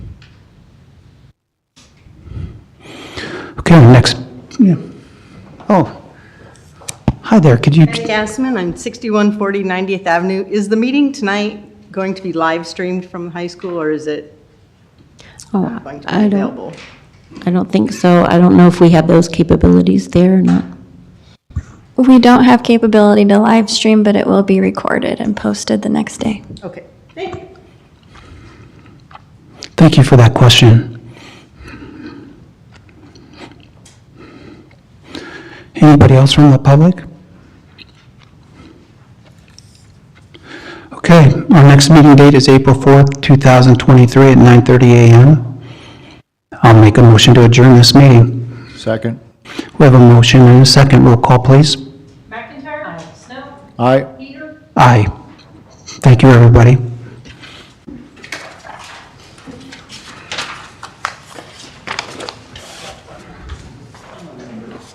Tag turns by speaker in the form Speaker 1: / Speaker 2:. Speaker 1: Okay, next, yeah. Oh, hi there, could you,
Speaker 2: Mary Gasman, I'm 6140 90th Avenue. Is the meeting tonight going to be live streamed from the high school, or is it
Speaker 3: Oh,
Speaker 2: going to be
Speaker 3: I don't,
Speaker 2: available?
Speaker 3: I don't think so. I don't know if we have those capabilities there or not.
Speaker 4: We don't have capability to live stream, but it will be recorded and posted the next day.
Speaker 2: Okay, thank you.
Speaker 1: thank you for that question. Anybody else from the public? Okay, our next meeting date is April 4th, 2023 at 9:30 a.m. I'll make a motion to adjourn this meeting.
Speaker 5: Second.
Speaker 1: We have a motion and a second. Roll call, please.
Speaker 6: McIntyre? Snow?
Speaker 5: Aye.
Speaker 6: Peter?
Speaker 1: Aye. Thank you, everybody.